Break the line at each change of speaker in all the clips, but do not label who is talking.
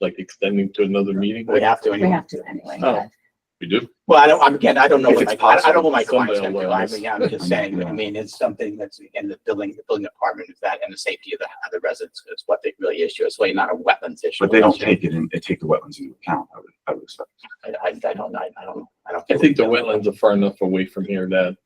like extending to another meeting?
We have to
We
anyway.
have to anyway.
Oh, we do?
Well, I don't, I'm, again, I don't know
If
what
it's
my, I I don't know what my
possible,
client's
somebody
gonna do. I
will
mean, I'm just saying, I mean, it's something that's, again, the building, the building department is that and the safety of the, of the residents is what they really issue. It's really not a weapons issue.
But they don't take it in, they take the wetlands into account, I would, I would expect.
I, I I don't, I I don't, I don't.
I think the wetlands are far enough away from here that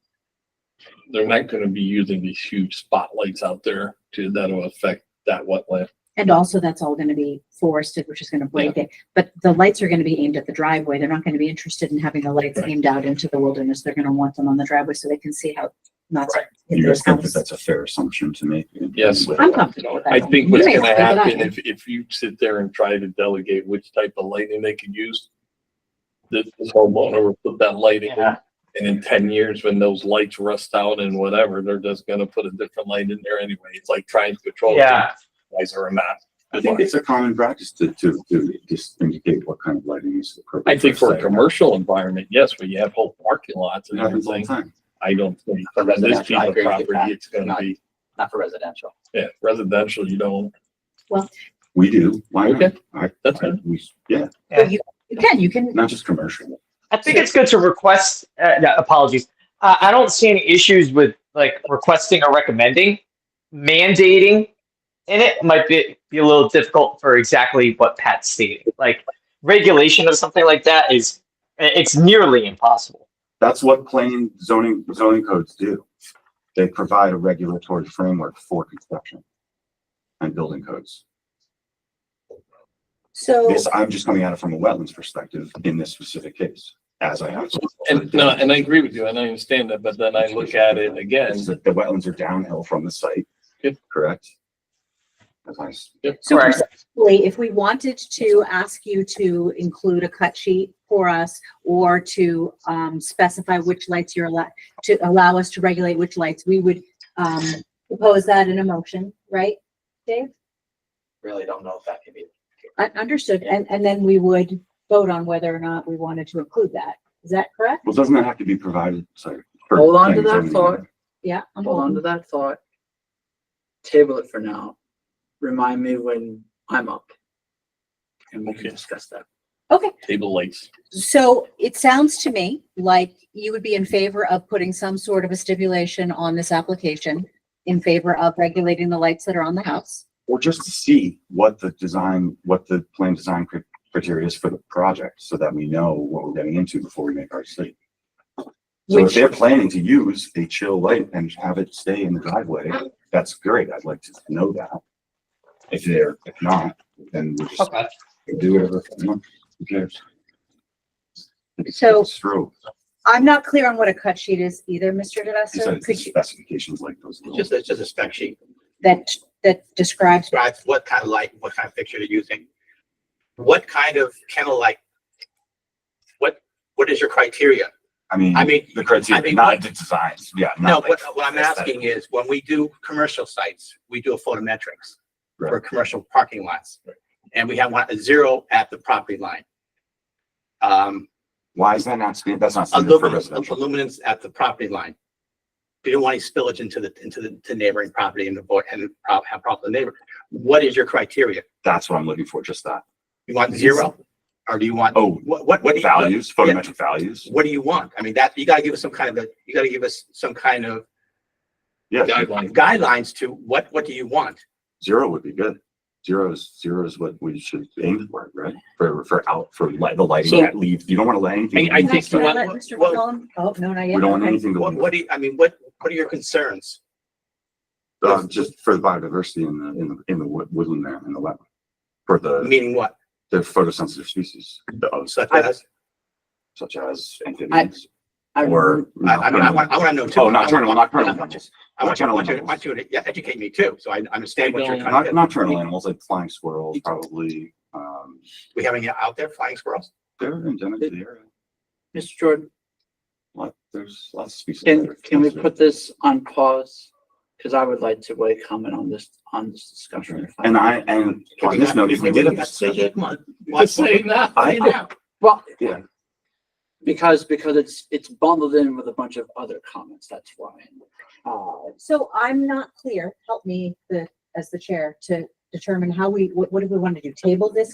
they're not gonna be using these huge spotlights out there to, that'll affect that wetland.
And also that's all gonna be forested, which is gonna break it. But the lights are gonna be aimed at the driveway. They're not gonna be interested in having the lights aimed out into the wilderness. They're gonna want them on the driveway so they can see how not to
Right.
hit
You
their
guys think that
house.
that's a fair assumption to make?
Yes.
With-
I'm comfortable with that.
I think what's
You
gonna
may not think that I
happen
am.
if, if you sit there and try to delegate which type of lighting they could use, this this homeowner will put that lighting in
Yeah,
And in ten years, when those lights rust out and whatever, they're just gonna put a different light in there anyway. It's like trying to control.
yeah,
Lights or not.
I think it's a common practice to, to, to just indicate what kind of lighting is appropriate.
I think for a
site.
commercial environment, yes, where you have whole parking lots
It
and
happens all the
everything,
time.
I don't think,
For
on this
residential,
piece
I
of
agree with you, Pat.
property, it's gonna
Not-
be,
not for residential.
yeah, residential, you don't,
We do, why not?
Okay.
I-
That's
I-
fine.
we- Yeah,
But You you can, you can,
not just commercial.
I think it's good to request, uh, yeah, apologies. Uh, I don't see any issues with like requesting or recommending, mandating. And it might be, be a little difficult for exactly what Pat's stating. Like regulation of something like that is, it's nearly impossible.
That's what planning zoning, zoning codes do. They provide a regulatory framework for construction and building codes.
so,
This, I'm just coming at it from a wetlands perspective in this specific case, as I have.
and no, and I agree with you, and I understand that, but then I look at it again.
It's that The wetlands are downhill from the site,
Yep.
correct? That's nice.
so
Right.
essentially, if we wanted to ask you to include a cut sheet for us or to, um, specify which lights you're allowed, to allow us to regulate which lights, we would, um, propose that in a motion, right, Dave?
Really don't know if that can be.
Un- Understood, and, and then we would vote on whether or not we wanted to include that. Is that correct?
Well, doesn't that have to be provided, sorry? for
Hold on to
planning
that
zoning?
thought.
Yeah. I'm
Hold on to that thought. Table it for now. Remind me when I'm up. And we
Okay.
can discuss that.
Okay,
Table lights.
so it sounds to me like you would be in favor of putting some sort of a stipulation on this application in favor of regulating the lights that are on the house.
Or just to see what the design, what the plan design cri- criteria is for the project, so that we know what we're getting into before we make our decision. So if
Which-
they're planning to use a chill light and have it stay in the driveway, that's great, I'd like to know that. If they're, if not, then we just
Okay.
do whatever, you know, who cares? It's-
So-
It's true,
I'm not clear on what a cut sheet is either, Mr.
these are
DeVessa.
the
Could you,
specifications like those.
It's just, it's just a spec sheet.
that, that describes,
describes what kind of light, what kind of fixture they're using. What kind of kennel light? What, what is your criteria?
I mean,
I mean,
the
I
criteria,
mean,
not
what-
the designs, yeah.
No,
not like-
what, what I'm asking is, when we do commercial sites, we do a photometrics for
Right.
commercial parking lots. And we have one, a zero at the property line. Um,
Why is that not, stand- that's not standard for
illuminance,
residential?
illuminance at the property line. You don't want any spillage into the, into the to neighboring property and the, bo- and prob- have problem with the neighbor. What is your criteria?
That's what I'm looking for, just that.
You want zero? Or do you want?
Oh,
What, what, what do you- what-
values, photometric values.
what do you want? I mean, that, you gotta give us some kind of, a you gotta give us some kind of
Yeah,
Guidelines.
guidelines to what, what do you want?
zero would be good. Zero is, zero is what we should aim for, right? For, for out, for light, the lighting
So-
that leaves, you don't want to let anything.
I
leave
think
the
Can I
site.
let Mr.
what-
Cullen- oh, no, not yet.
We don't want
Okay.
anything to
What,
leave,
what do you, I mean, what, what are your concerns?
uh, just for the biodiversity in the, in the, in the wood- woodland there, in the wetland. For the,
Meaning what?
the photosensitive species, the others,
Such as,
such as amphibians
I-
or.
I, I mean, I want, I wanna know too.
Oh, nocturnal, nocturnal
I want you,
animals.
I want you, I want you, I
Nocturnal
want you to yeah, educate me too, so I understand what you're trying to
Noc-
get.
Nocturnal animals like flying squirrels, probably, um,
We having out there flying squirrels?
they're endemic to the area.
Mr. Jordan,
Like, there's lots of species. that
can,
are
can we
considered-
put this on pause? Because I would like to weigh comment on this, on this discussion. if
And I, and on this uh, note, if we did have a
That's such
decision,
a month.
Just saying that.
I-
Well,
yeah,
because, because it's, it's bundled in with a bunch of other comments, that's why. Uh,
So I'm not clear. Help me, the, as the chair, to determine how we, what, what do we want to do? Table this